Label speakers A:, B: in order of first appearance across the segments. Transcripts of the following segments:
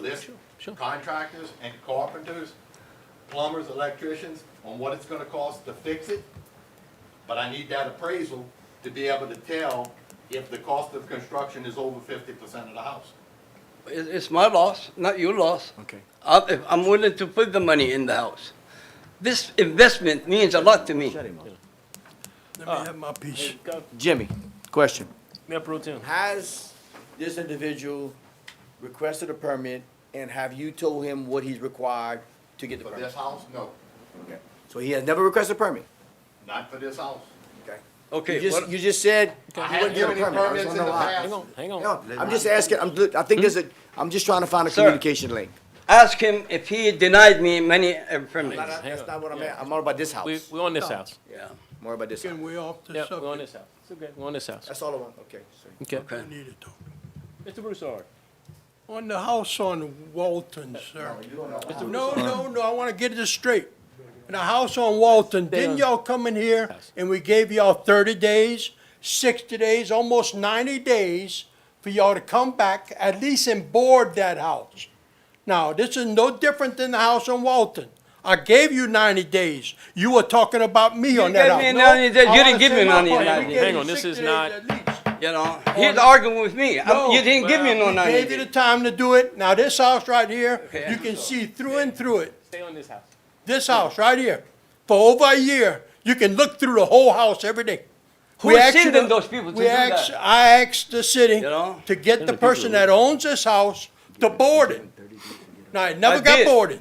A: list
B: sure.
A: contractors and carpenters, plumbers, electricians, on what it's gonna cost to fix it. But I need that appraisal to be able to tell if the cost of construction is over fifty percent of the house.
B: It- It's my loss, not your loss.
C: Okay.
B: I- if I'm willing to put the money in the house. This investment means a lot to me.
C: Shut him up.
D: Let me have my piece.
C: Jimmy, question.
E: Mayor Pro Tem.
C: Has this individual requested a permit and have you told him what he's required to get the
A: For
C: permit?
A: this house, no,
C: Okay. So he has never requested a permit?
A: not for this house.
C: Okay.
B: Okay,
C: You just,
B: what-
C: you just said you
A: I
C: wouldn't
A: haven't
C: give a
A: given any
C: permit. I just
A: permits
C: don't
A: in
C: know
A: the
C: why.
A: past.
E: Hang on.
C: No, I'm just asking, I'm, look, I think there's a, I'm just trying to find a
B: Sir.
C: communication link.
B: ask him if he denied me many uh,
C: Not-
B: permits.
C: That's not what I'm,
E: Yeah.
C: at. I'm all about this
E: We,
C: house.
E: we on this house.
B: Yeah,
C: More about this house.
D: Can we off the
E: Yeah, we on
D: subject?
E: this house. It's okay. We on this house.
C: That's all I want, okay. sorry.
E: Okay.
B: okay.
D: I need to talk.
E: Mr. Broussard.
D: On the house on Walton, sir. No, no, no, I wanna get this straight. The house on Walton, didn't y'all come in here and we gave y'all thirty days, sixty days, almost ninety days for y'all to come back, at least and board that house? Now, this is no different than the house on Walton. I gave you ninety days. You were talking about me on that
B: gave
D: house.
B: me
D: No,
B: 90 days.
D: I
B: You didn't
D: wanna
B: give me
D: say my
B: none of
D: point.
B: your
D: We
B: 90
D: gave
E: Hang
D: you
E: on, this
D: 60
E: is
D: days
E: not-
D: at least.
B: You know, he's arguing with me. I'm- You
D: No,
B: didn't give me no
E: well,
D: We
B: ninety
D: gave you the
B: days.
D: time to do it. Now, this house right here,
B: Okay.
D: you can see through and through it.
E: Stay on this house.
D: This house right here, for over a year, you can look through the whole house every day.
B: Who
D: We asked you
B: sending
D: to-
B: those people to
D: we
B: do
D: asked-
B: that?
D: I asked the city
B: You know?
D: to get the person that owns this house to board it. Now, it never
B: I
D: got
B: did.
D: boarded,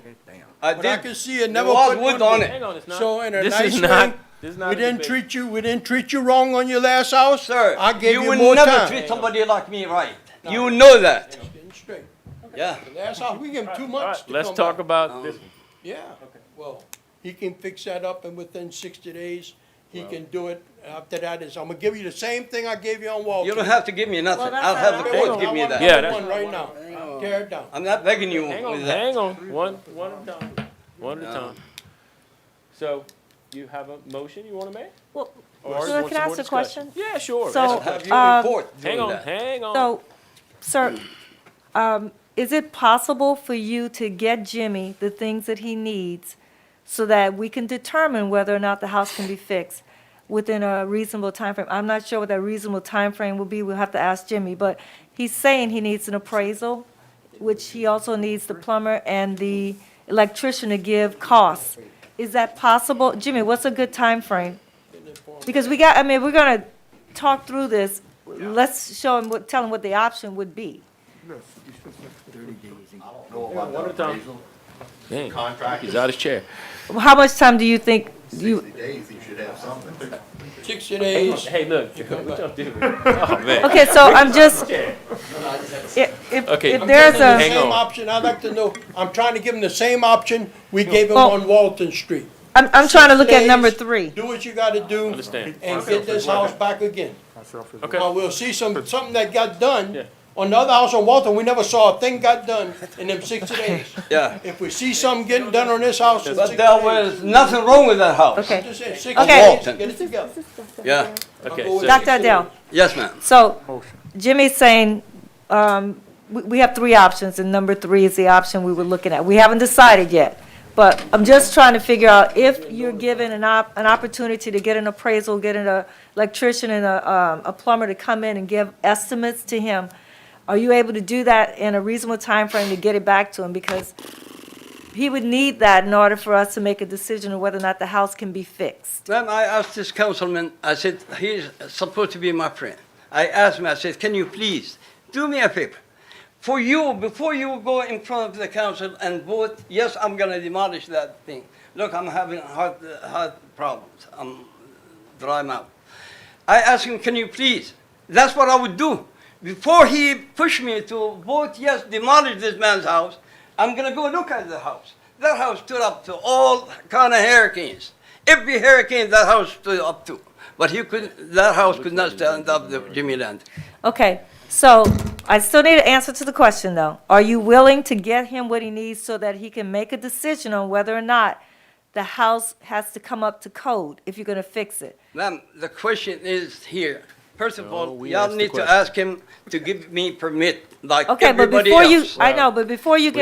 B: I
D: but I
B: did.
D: can see it
B: There
D: never
B: was
D: put
B: wood
D: one
B: on
D: board.
B: it.
E: Hang on, it's not.
D: So in a
E: this
D: nice
E: is not.
D: way,
E: This is not.
D: we
E: a
D: didn't
E: debate.
D: treat you, we didn't treat you wrong on your last house.
B: Sir,
D: I gave
B: you
D: you
B: will
D: more
B: never
D: time.
B: treat somebody like me right. You know that,
D: Getting straight.
B: yeah.
D: Last house, we gave him two
E: All
D: months
E: right,
D: to
E: let's
D: come
E: talk
D: back.
E: about this. one.
D: Yeah, well, he can fix that up and within sixty days, he can do it. After that is, I'm gonna give you the same thing I gave you on Walton.
B: You don't have to give me nothing. I'll have the
D: Hang
B: court
D: on,
B: give
D: I
B: me
D: want
B: that.
E: Yeah,
D: another
E: that's-
D: One right now, tear it down.
B: I'm not begging you
E: Hang on,
B: with that.
E: hang on. One, one at a time. One at a time. So, you have a motion you want to make?
F: Well,
E: Or
F: Sir,
E: you want
F: can
E: some
F: I
E: more
F: ask a
E: discussion?
F: question?
E: Yeah, sure.
F: So-
B: I'll have you
F: Uh,
B: report
E: hang
B: doing
E: on,
B: that.
E: hang on.
F: so, sir, um, is it possible for you to get Jimmy the things that he needs so that we can determine whether or not the house can be fixed within a reasonable time frame? I'm not sure what that reasonable time frame will be. We'll have to ask Jimmy, but he's saying he needs an appraisal, which he also needs the plumber and the electrician to give costs. Is that possible? Jimmy, what's a good time frame? Because we got, I mean, we're gonna talk through this, let's show him, what- tell him what the option would be.
A: I don't know about that
E: at a time.
A: appraisal.
E: Dang, he's
A: Contractors,
E: out of his chair.
F: How much time do you think, you,
A: sixty days, you should have something.
D: Sixty days.
E: Hey, look. What y'all doing? Oh, man.
F: okay, so I'm just, if, if-
E: Okay.
F: if there's
D: The
E: Hang
F: a,
D: Same
E: on.
D: option, I'd like to know, I'm trying to give him the same option we gave him
F: Well-
D: on Walton Street.
F: I'm, I'm trying to look at
D: Days,
F: number three.
D: Do what you gotta do.
E: Understand.
D: And get this house back again. Now,
E: Okay.
D: we'll see some, something that got done.
E: Yeah.
D: On the other house on Walton, we never saw a thing got done in them sixty days.
B: Yeah,
D: If we see something getting done on this house in
B: but
D: sixty
B: there
D: days-
B: was nothing wrong with that house.
F: Okay.
D: Just say sixty
F: Okay.
D: days,
B: Walton.
D: get it together.
B: Yeah,
E: Okay.
D: I'll go
E: so-
D: with-
F: Dr. Adele,
B: yes, ma'am.
F: so Jimmy's saying, um, we, we have three options, and number three is the option we were looking at. We haven't decided yet, but I'm just trying to figure out if you're given an op, an opportunity to get an appraisal, get an uh, electrician and a, um, a plumber to come in and give estimates to him, are you able to do that in a reasonable time frame to get it back to him? Because he would need that in order for us to make a decision on whether or not the house can be fixed.
B: Then I asked this councilman, I said, he's supposed to be my friend. I asked him, I said, can you please do me a favor? For you, before you go in front of the council and vote, yes, I'm gonna demolish that thing. Look, I'm having heart, heart problems. I'm dry mouth. I asked him, can you please? That's what I would do. Before he pushed me to vote, yes, demolish this man's house, I'm gonna go look at the house. That house stood up to all kind of hurricanes. Every hurricane that house stood up to. But he could, that house could not stand up to Jimmy Land.
F: Okay, so I still need an answer to the question, though. Are you willing to get him what he needs so that he can make a decision on whether or not the house has to come up to code if you're gonna fix it?
B: Ma'am, the question is here, First of all,
E: we
B: y'all
E: asked the
B: need to
E: question.
B: ask him to give me permit, like
F: Okay, but
B: everybody
F: before you,
B: else.
F: I know, but before you get